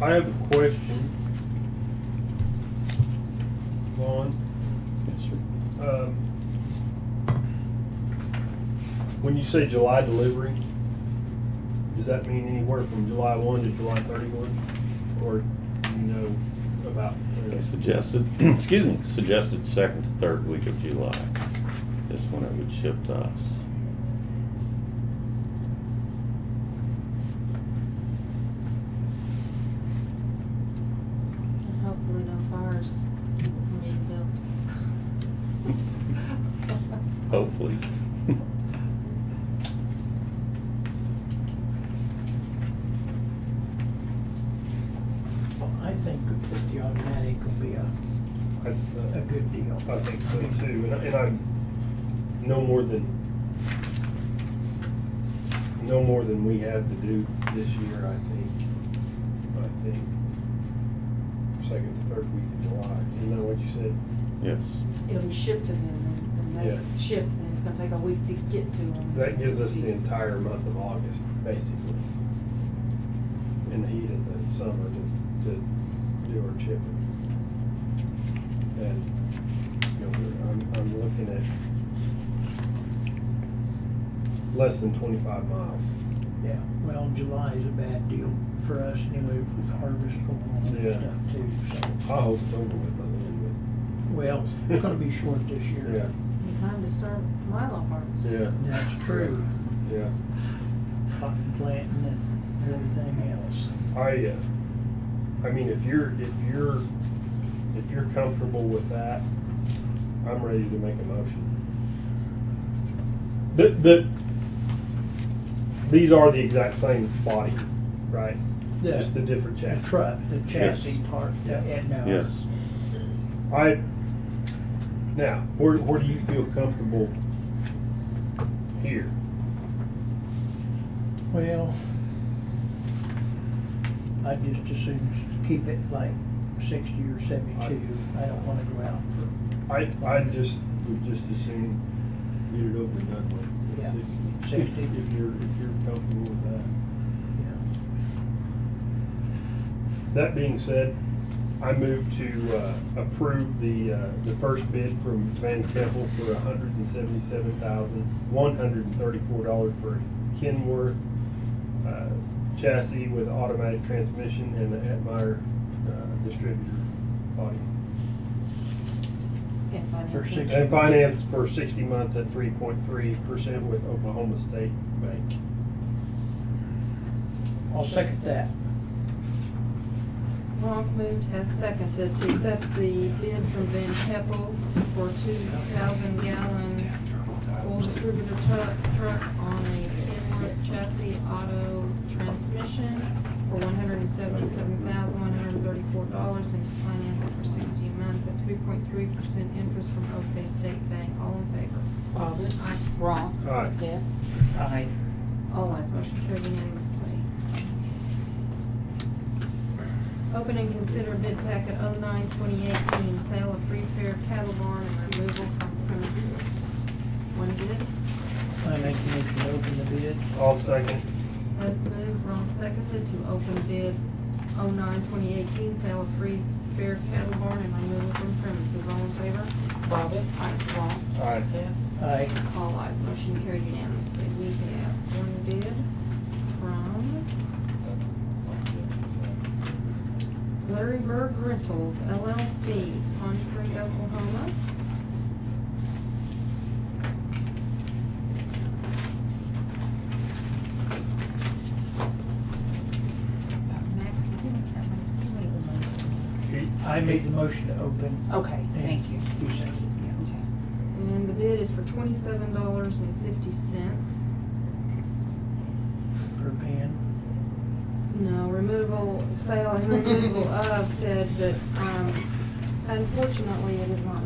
I have a question. Vaughn, Yes, sir. um, when you say July delivery, does that mean anywhere from July one to July thirty-one? Or do you know about? uh, They suggested, excuse me, suggested second to third week of July is when it would ship to us. And hopefully no fires from being built. Hopefully. Well, I think that the automatic would be a, I- a good deal. I think so too, and I- and I'm no more than, no more than we have to do this year, I think. I think second to third week of July, isn't that what you said? Yes. It'll be shipped to them and then Yeah. they ship, and it's gonna take a week to get to them. That gives us the entire month of August, basically. In the heat of the summer to, to do our chipping. And, you know, we're- I'm, I'm looking at less than twenty-five miles. Yeah, well, July is a bad deal for us anyway with harvest going on and Yeah. stuff too, so. I hope it's over with by then, Well, it's gonna be short this year. but, yeah, The Time to start Mylar harvest. yeah, That's true. yeah. Cotton planting and everything else. I, uh, I mean, if you're, if you're, if you're comfortable with that, I'm ready to make a motion. The, the, these are the exact same body, right? Just the The, different the chassis. truck, the chassis part, the- and now. Yes. I, now, where, where do you feel comfortable here? Well, I just as soon as keep it like sixty or seventy-two. I don't wanna go out I, I just, would just assume get it over and done with. Yeah. Sixty. Sixty. If you're, if you're comfortable with that. for, you know, That being said, I move to uh, approve the, uh, the first bid from Van Keppel for hundred and seventy-seven thousand, one hundred and thirty-four dollars for Kenworth uh, chassis with automatic transmission and the Atmeyer uh, distributor body. And financial. For six- And finance for sixty months at three point three percent with Oklahoma State Bank. I'll second that. Ronk moved has seconded to accept the bid from Van Keppel for two thousand gallon full distributor truck, truck on a Kenworth chassis auto transmission for one hundred and seventy-seven thousand, one hundred and thirty-four dollars and to finance it for sixty months at three point three percent interest from OK State Bank. All in favor? Bobbit, Aye. wrong, Aye. yes. Aye. All eyes motion carried unanimously. Open and consider bid packet 09-2018 sale of free fair cattle barn and removal from premises. One bid, I make the motion to open the bid. All second. Hess moved, Ron seconded to open bid 09-2018 sale of free fair cattle barn and removal from premises. All in favor? Bobbit, Aye. Wrong. Aye. yes. Aye. All eyes motion carried unanimously. We have one bid from Larry Berg Rentals LLC, Contree, Oklahoma. I made the motion to open. Okay, thank you. You second, Okay. And the bid is for twenty-seven dollars and fifty cents. yeah, per pen. No, removal, sale and removal of said, but, um, unfortunately, it is not